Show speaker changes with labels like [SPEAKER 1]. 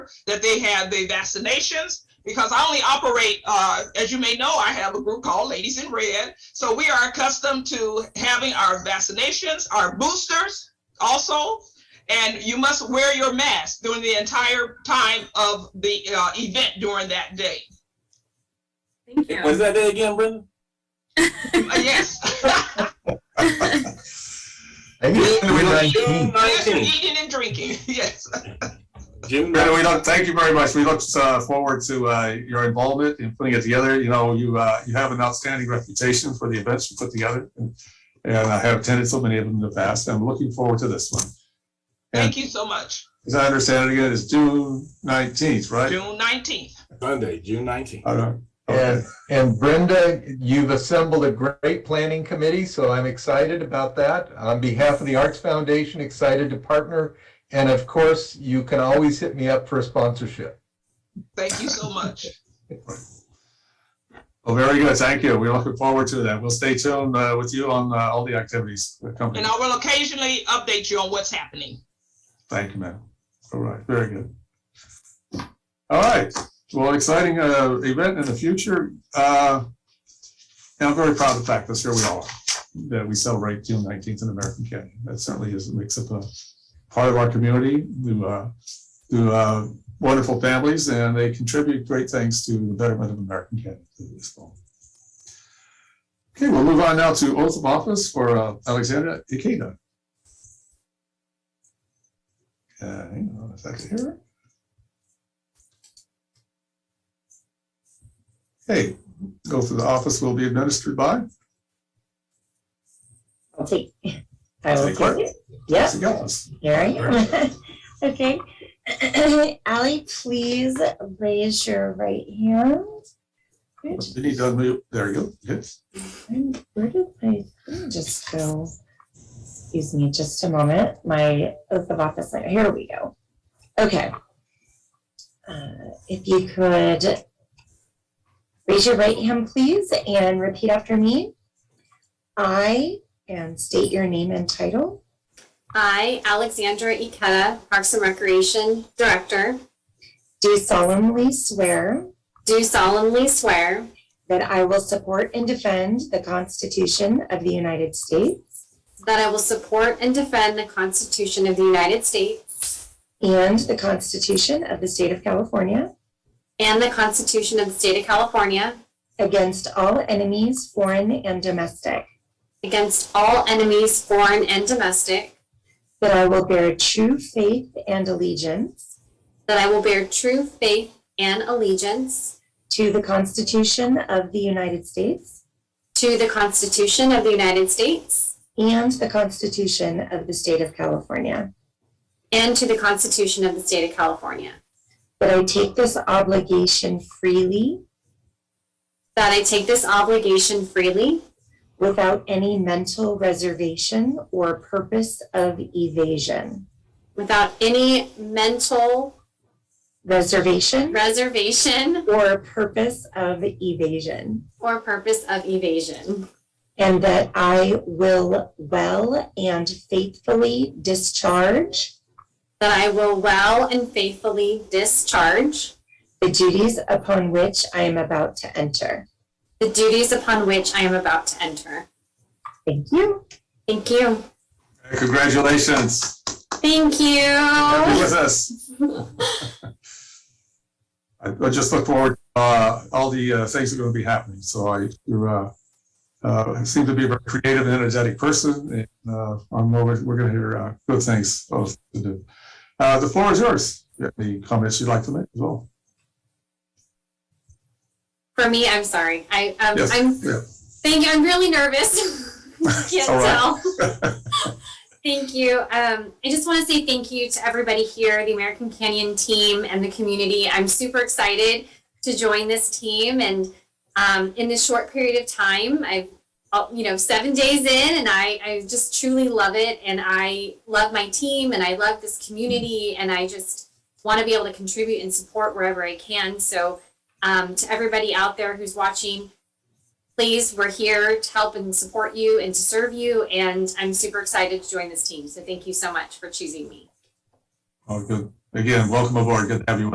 [SPEAKER 1] that they have their vaccinations because I only operate, uh, as you may know, I have a group called Ladies in Red. So we are accustomed to having our vaccinations, our boosters also. And you must wear your mask during the entire time of the uh, event during that day.
[SPEAKER 2] Thank
[SPEAKER 3] Was
[SPEAKER 2] you.
[SPEAKER 3] that day again, Brenda?
[SPEAKER 1] Uh, yes.
[SPEAKER 4] Maybe we
[SPEAKER 3] June
[SPEAKER 4] don't,
[SPEAKER 1] yes, you're
[SPEAKER 3] 19th.
[SPEAKER 1] eating and drinking. Yes.
[SPEAKER 3] June
[SPEAKER 4] Brandon,
[SPEAKER 3] 19th.
[SPEAKER 4] we look, thank you very much. We look uh, forward to uh, your involvement in putting it together. You know, you uh, you have an outstanding reputation for the events you put together, and, and I have attended so many of them in the past. I'm looking forward to this one.
[SPEAKER 1] Thank you so much.
[SPEAKER 4] As I understand it, again, it's June 19th, right?
[SPEAKER 1] June 19th.
[SPEAKER 3] Sunday, June 19th.
[SPEAKER 4] I don't-
[SPEAKER 5] And, and Brenda, you've assembled a great planning committee, so I'm excited about that. On behalf of the Arts Foundation, excited to partner. And of course, you can always hit me up for a sponsorship.
[SPEAKER 1] Thank you so much.
[SPEAKER 4] Well, very good. Thank you. We're looking forward to that. We'll stay tuned uh, with you on uh, all the activities that come.
[SPEAKER 1] And I will occasionally update you on what's happening.
[SPEAKER 4] Thank you, ma'am. All right, very good. All right, well, exciting uh, event in the future. Uh, And I'm very proud of the fact that here we all are, that we celebrate June 19th in American Canyon. That certainly is, makes up a part of our community, to, uh, to uh, wonderful families, and they contribute great things to the betterment of American Canyon. through this fall. Okay, we'll move on now to oath of office for uh, Alexandra Ikeda. Uh, hang on a second here. Hey, go through the office will be administered by
[SPEAKER 6] I'll take. I will
[SPEAKER 4] Take clerk.
[SPEAKER 6] take it. Yep,
[SPEAKER 4] Nancy Gillis.
[SPEAKER 6] here I am. Okay. Ally, please raise your right hand. Good.
[SPEAKER 4] You need to unmute, there you go. Yes.
[SPEAKER 6] And Where did my, thing just go? Excuse me just a moment. My oath of office, letter. here we go. Okay. Uh, If you could raise your right hand, please, and repeat after me. I, and state your name and title.
[SPEAKER 2] I, Alexandra Ikeda, Parks and Recreation Director,
[SPEAKER 6] Do solemnly swear
[SPEAKER 2] do solemnly swear
[SPEAKER 6] that I will support and defend the Constitution of the United States
[SPEAKER 2] that I will support and defend the Constitution of the United States
[SPEAKER 6] and the Constitution of the State of California
[SPEAKER 2] and the Constitution of the State of California
[SPEAKER 6] against all enemies, foreign and domestic,
[SPEAKER 2] against all enemies, foreign and domestic,
[SPEAKER 6] that I will bear true faith and allegiance
[SPEAKER 2] that I will bear true faith and allegiance
[SPEAKER 6] to the Constitution of the United States
[SPEAKER 2] to the Constitution of the United States
[SPEAKER 6] and the Constitution of the State of California,
[SPEAKER 2] and to the Constitution of the State of California,
[SPEAKER 6] that I take this obligation freely
[SPEAKER 2] that I take this obligation freely
[SPEAKER 6] without any mental reservation or purpose of evasion.
[SPEAKER 2] without any mental
[SPEAKER 6] reservation
[SPEAKER 2] reservation
[SPEAKER 6] or purpose of evasion,
[SPEAKER 2] or purpose of evasion,
[SPEAKER 6] and that I will well and faithfully discharge
[SPEAKER 2] that I will well and faithfully discharge
[SPEAKER 6] the duties upon which I am about to enter.
[SPEAKER 2] the duties upon which I am about to enter.
[SPEAKER 6] Thank you.
[SPEAKER 2] Thank you.
[SPEAKER 4] Congratulations.
[SPEAKER 2] Thank
[SPEAKER 4] Happy
[SPEAKER 2] you.
[SPEAKER 4] with us. I I just look forward, to, uh, all the uh, things that are going to be happening. So I, you uh, uh, seem to be a very creative and energetic person. And uh, I'm over, we're going to hear uh, good things both to do. Uh, The floor is yours. If you have Any comments you'd like to make as well?
[SPEAKER 2] For me, I'm sorry. I um,
[SPEAKER 4] Yes,
[SPEAKER 2] I'm
[SPEAKER 4] yeah.
[SPEAKER 2] thank you. I'm really nervous. Can't
[SPEAKER 4] It's all right.
[SPEAKER 2] tell. Thank you. Um, I just want to say thank you to everybody here, the American Canyon team and the community. I'm super excited to join this team, and um, in this short period of time, I've uh, you know seven days in, and I I just truly love it, and I love my team, and I love this community, and I just want to be able to contribute and support wherever I can. So um, to everybody out there who's watching, please, we're here to help and support you and to serve you. And I'm super excited to join this team. So thank you so much for choosing me.
[SPEAKER 4] Oh, good. Again, welcome aboard. Good to have you